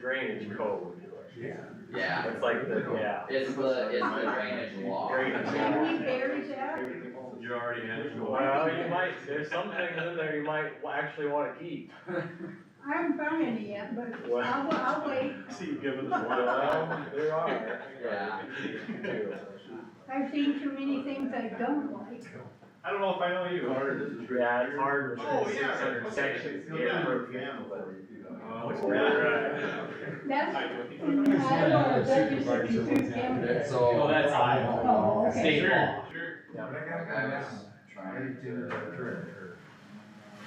drainage code. Yeah. Yeah, It's like the, yeah. it's the, it's the drainage law. Drainage law. Can we bury that? You already had it. Well, you might, there's some things in there you might actually wanna keep. I haven't found any yet, but I'll, I'll wait. See, you've given us Well, there are. Yeah. I've seen too many things I don't like. I don't know if I know you. Yeah, it's hard Oh, with yeah. six hundred sections, to get for people, but. Oh, It's right. That's, in Sure, Iowa, that used to be two cameras. So. Oh, that's Iowa. Oh, okay. State law. sure. Yeah, But I I gotta go was down. trying to.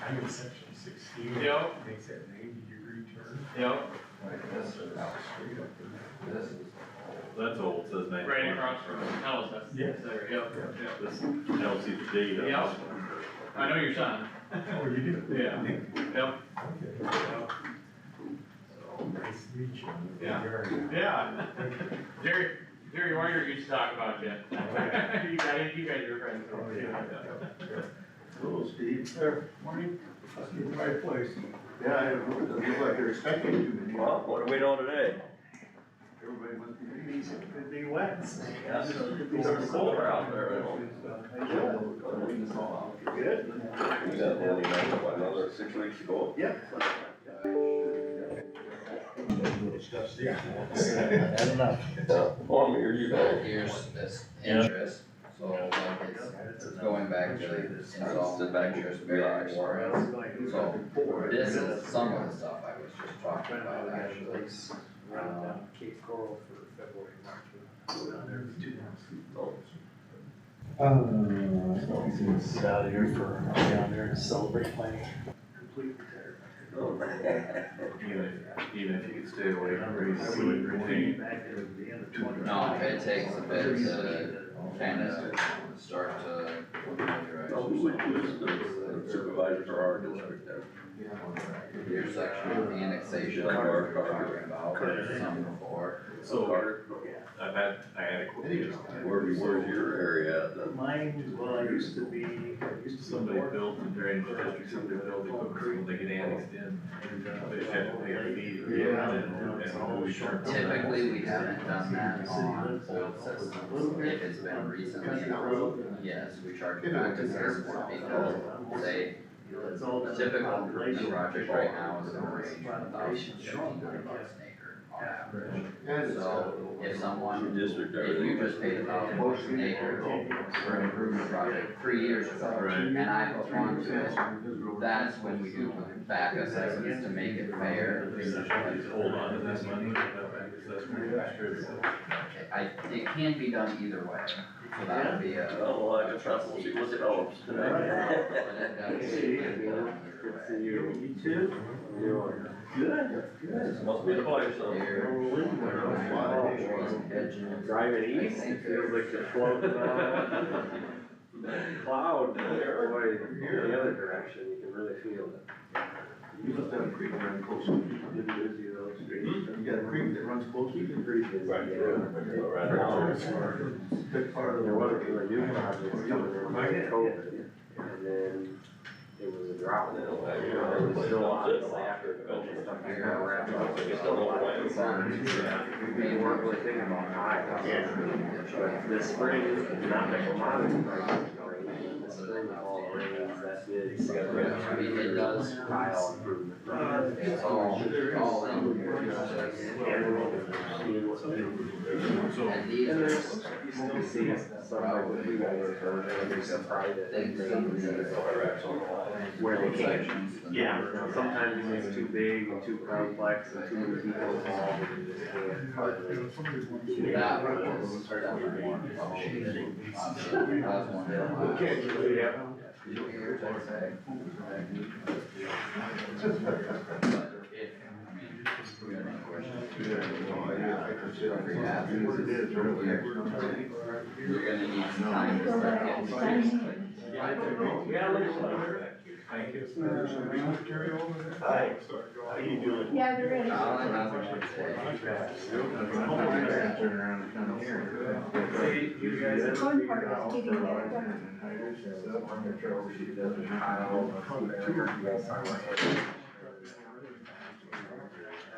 I'm in section sixteen. Yep. Makes that ninety degree turn. Yep, Like this or that street up there. This is. That's old, says name. Right across from Hell's, that's, Yes. there, yep, yep. This tells you the date of Yeah. this one. I know your son, Oh, you do? Yeah. yep. Okay. Nice to meet you. Yeah. You're- yeah. Jerry, Jerry Warner used to talk about you. You guys, you guys are friends. Oh, yeah. Hello, Steve. Morning. Let's get to my place. Yeah, I don't know, it doesn't look like they're expecting you to be. Well, what do we know today? Everybody must be leaving. It'd be wet. Yeah. It's colder out there, Good? We got one, what, another six weeks ago? Yeah. Oh, I'm here, you So go. here's this interest, so like it's, it's going back to installment interest, bearing warrants. So this is some of the stuff I was just talking about actually. Um, Uh, out of here for, down there to celebrate my. Even if, even if you could stay away from race, you would retain. No, it takes a bit to kind of start to. Supervisor for our district there. Here's actually the annexation we were talking about, there's some before. So Carter, I've had, I had a question, where, where's your area at then? Mine, well, I used to be, I used to. Somebody built a drainage district, somebody built a cook when they get annexed in, they just have to pay a fee. to get Yeah. in, and- and we turn them down. Typically, we haven't done that on old systems, if it's been recently, yes, we charge it back to Salesforce because they The typical new project right now is in the range from a thousand to fifteen hundred bucks an acre on average. So if someone, District. if you just paid a thousand bucks an acre for an improvement project three years ago, Right. and I put on to it, that's when we do back assessments to make it fair. Just hold on to this money, because that's where you're distributing. I, it can be done either way, so that would be a. Oh, well, I can trust, we'll see what develops tonight. but it definitely can be done either way. You too? Good. Good. Must be the place, Here, Driving east, it feels like you're floating on a cloud, boy, in the other direction, you can really feel it. You must have a creek that runs close. You got a creek that runs close, you can creek it. Right, yeah. Right around. Big part of the. There wasn't really new projects coming in like COVID, and then it was a drought, and then it was still on until after COVID stuff. I gotta wrap up. Just a little plan. We weren't really thinking about high, but this spring, not the commodity prices going in, this spring, all the rains, that's it. You got red I mean, it does Pile improvement. Uh, It's all, all in here, it's just- and these are just Probably over, there's a private things thing, where they can't sections. and Yeah, numbers. no, sometimes it's too big and too complex and too many people involved and you just can't. That was definitely one of the options. That was one of the last. Yeah. years, I'd say. But if, I mean, if we had any questions, you're gonna need some time to start getting things. Thank you. Hi. How you doing? Yeah, there is. All I have is to say, You guys have One part is getting that done. Kyle,